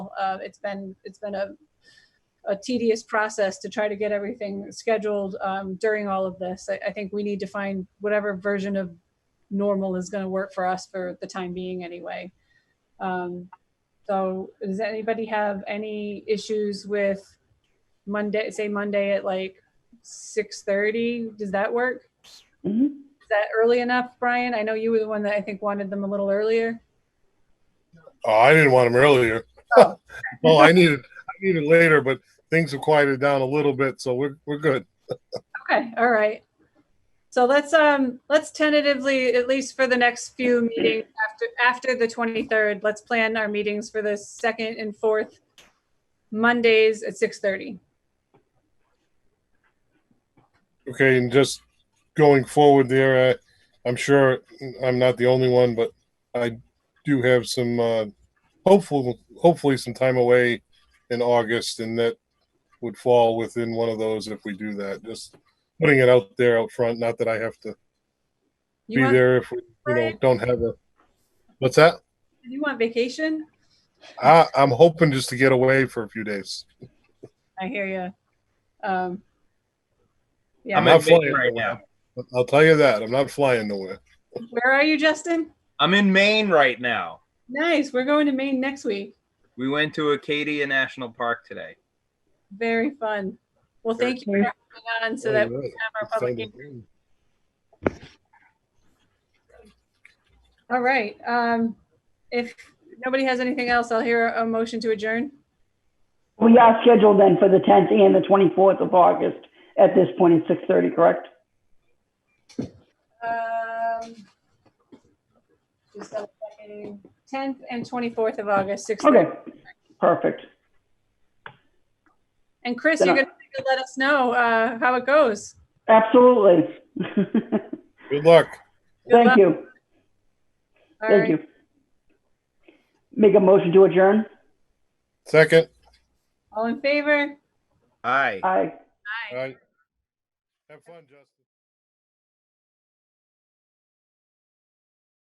Uh, it's been, it's been a, a tedious process to try to get everything scheduled um, during all of this. I, I think we need to find whatever version of normal is going to work for us for the time being anyway. Um, so does anybody have any issues with Monday, say Monday at like 6:30? Does that work? Mhm. Is that early enough, Brian? I know you were the one that I think wanted them a little earlier. Oh, I didn't want them earlier. Oh. well, I needed I needed later, but things have quieted down a little bit, so we're we're good. Okay, all right. So let's, um, let's tentatively, at least for the next few meetings after, after the 23rd, let's plan our meetings for the second and fourth Mondays at 6:30. Okay, and just going forward there, uh, I'm sure I'm not the only one, but I do have some uh, hopeful hopefully some time away in August, and that would fall within one of those if we do that. Just putting it out there out front. Not that I have to You be want, there if we you know don't have a. What's that? you want vacation? I, I'm hoping just to get away for a few days. I hear you. Um, I'm I'm yeah, not in Maine flying right nowhere. now. I'll tell you that. I'm not flying nowhere. where are you, Justin? I'm in Maine right now. Nice, we're going to Maine next week. We went to Acadia National Park today. Very fun. Well, Very thank you for coming on so that we Alright. have our public. All right. Um, if nobody has anything else, I'll hear a motion to adjourn. We are scheduled then for the 10th and the 24th of August at this point at 6:30, correct? Um, just double checking. 10th and 24th of August, 6th. Okay, perfect. And Chris, you're going to let us know uh, how it goes. Absolutely. Good luck. Good luck. Thank you, All thank right. you. Make a motion to adjourn? Second. All in favor? Hi. Aye. All right. Have fun, Justin.